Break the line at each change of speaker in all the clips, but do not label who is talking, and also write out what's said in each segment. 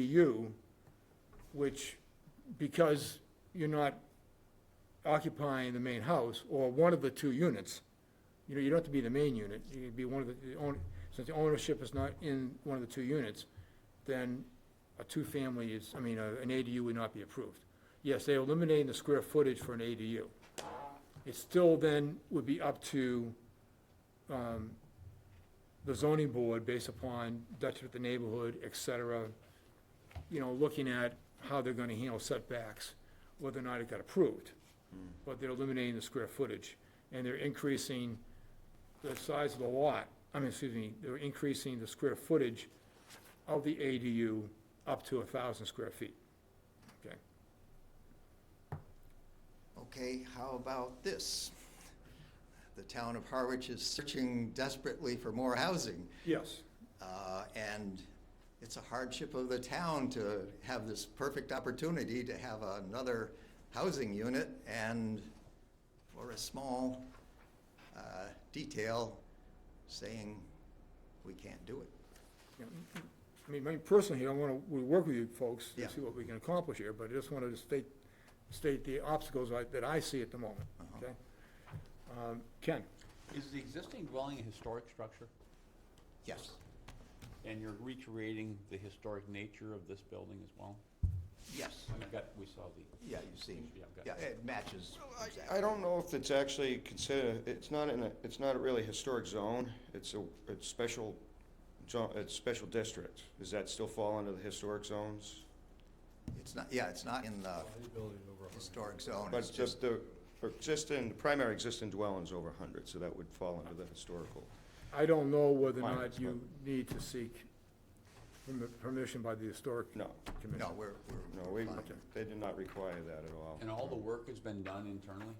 ADU, which, because you're not occupying the main house, or one of the two units, you know, you don't have to be the main unit, you could be one of the, the own- since the ownership is not in one of the two units, then a two-family is, I mean, a- an ADU would not be approved. Yes, they're eliminating the square footage for an ADU. It still then would be up to, um, the zoning board based upon detriment to the neighborhood, et cetera, you know, looking at how they're gonna handle setbacks, whether or not it got approved. But they're eliminating the square footage, and they're increasing the size of the lot, I mean, excuse me, they're increasing the square footage of the ADU up to a thousand square feet. Okay,
Okay, how about this? The town of Harwich is searching desperately for more housing,
yes,
uh, and it's a hardship of the town to have this perfect opportunity to have another housing unit, and for a small uh, detail, saying we can't do it.
I mean, me personally, I wanna, we work with you folks
Yeah.
to see what we can accomplish here, but I just wanted to state, state the obstacles I- that I see at the moment, okay? Um, Ken?
Is the existing dwelling a historic structure?
Yes,
And you're recreating the historic nature of this building as well?
yes,
We've got, we saw the,
yeah, you see,
Yeah, I've got
yeah, it matches. exactly.
I don't know if it's actually considered, it's not in a, it's not a really historic zone, it's a, it's special, zo- it's special district. Does that still fall under the historic zones?
It's not, yeah, it's not in the historic zone, it's
But
just,
just the existing, the primary existing dwelling's over hundred, so that would fall under the historical.
I don't know whether or
Fine,
not
it's
you need to seek permi- permission by the historic
No,
commission.
no, we're, we're.
no,
we're
we,
fine.
they did not require that at all.
and all the work has been done internally?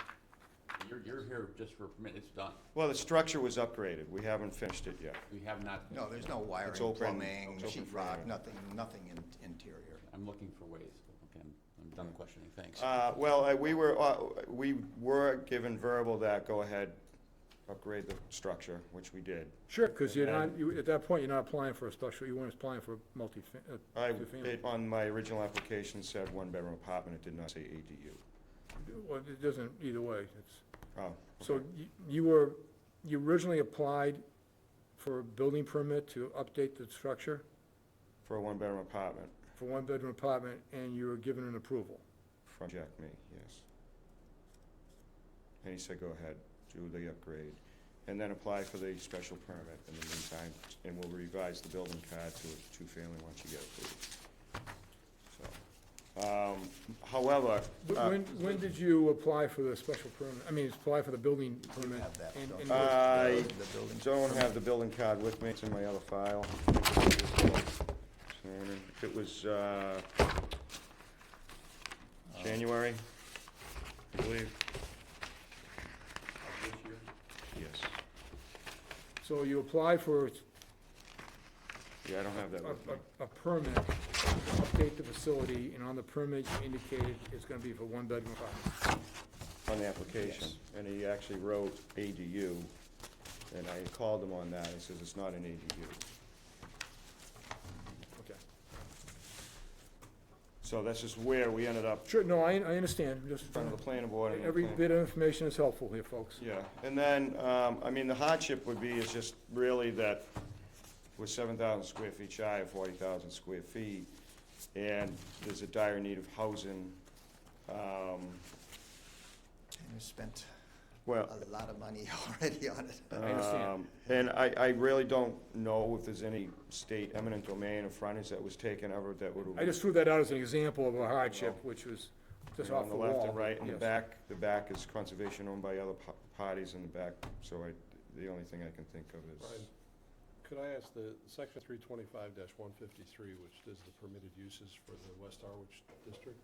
You're, you're here just for a permit, it's done.
Well, the structure was upgraded, we haven't finished it yet.
We have not.
No, there's no wiring,
open.
plumbing,
It's open
sheetrock,
for area.
nothing, nothing in- interior.
I'm looking for ways. Okay, I'm- I'm done questioning, thanks.
Uh, well, uh, we were, uh, we were given verbal that, go ahead, upgrade the structure, which we did.
Sure, because you're not, you, at that point, you're not applying for a special, you weren't applying for a multi,
I,
uh, two-family.
it, on my original application said one-bedroom apartment, it did not say ADU.
Well, it doesn't, either way, it's,
Oh,
so you, you were, you originally applied for a building permit to update the structure
for a one-bedroom apartment,
for one-bedroom apartment, and you were given an approval.
from Jack Me, yes. And he said, go ahead, do the upgrade, and then apply for the special permit in the meantime, and we'll revise the building card to a two-family once you get approved. So, um, however,
Wh-
uh,
When, when did you apply for the special permit, I mean, apply for the building permit?
have that,
and-
don't
and-
we?
I
The building-
don't have the building card with me, it's in my other file. It was, uh, January, I believe.
Of This year,
Yes.
So you applied for
Yeah, I don't have that
a,
with me.
a- a permit to update the facility, and on the permit, you indicated it's gonna be for one bedroom apartment. uh,
on the application, and he actually wrote ADU, and I called him on that, he says it's not an ADU.
Okay.
So that's just where we ended up,
Sure, no, I, I understand, just,
in front of the planning board. and the
every
plan-
bit of information is helpful here, folks.
Yeah, and then, um, I mean, the hardship would be is just really that we're seven thousand square feet shy of forty thousand square feet, and there's a dire need of housing. Um,
And we spent
Well,
a lot of money already on it.
I understand.
Um, And I, I really don't know if there's any state eminent domain or frontage that was taken ever that would.
I just threw that out as an example of a hardship, which was just
you know,
off the wall.
On the left and right, and the
Yes.
back, the back is conservation owned by other pa- parties in the back, so I, the only thing I can think of is,
Brian, Could I ask the section three twenty-five one fifty-three, which does the permitted uses for the West Harwich district,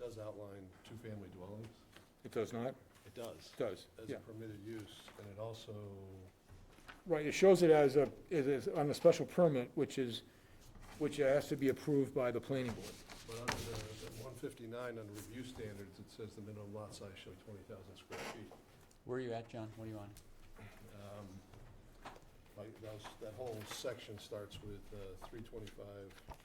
does outline two-family dwellings?
It does not, it
It does,
does,
as
yeah.
a permitted use, and it also,
Right, it shows it as a, it is on a special permit, which is, which has to be approved by the planning board.
but under the, the one fifty-nine, under review standards, it says the minimum lot size shall be twenty thousand square feet.
where are you at, John? What are you on?
Um, Like, those, that whole section starts with three uh, twenty-five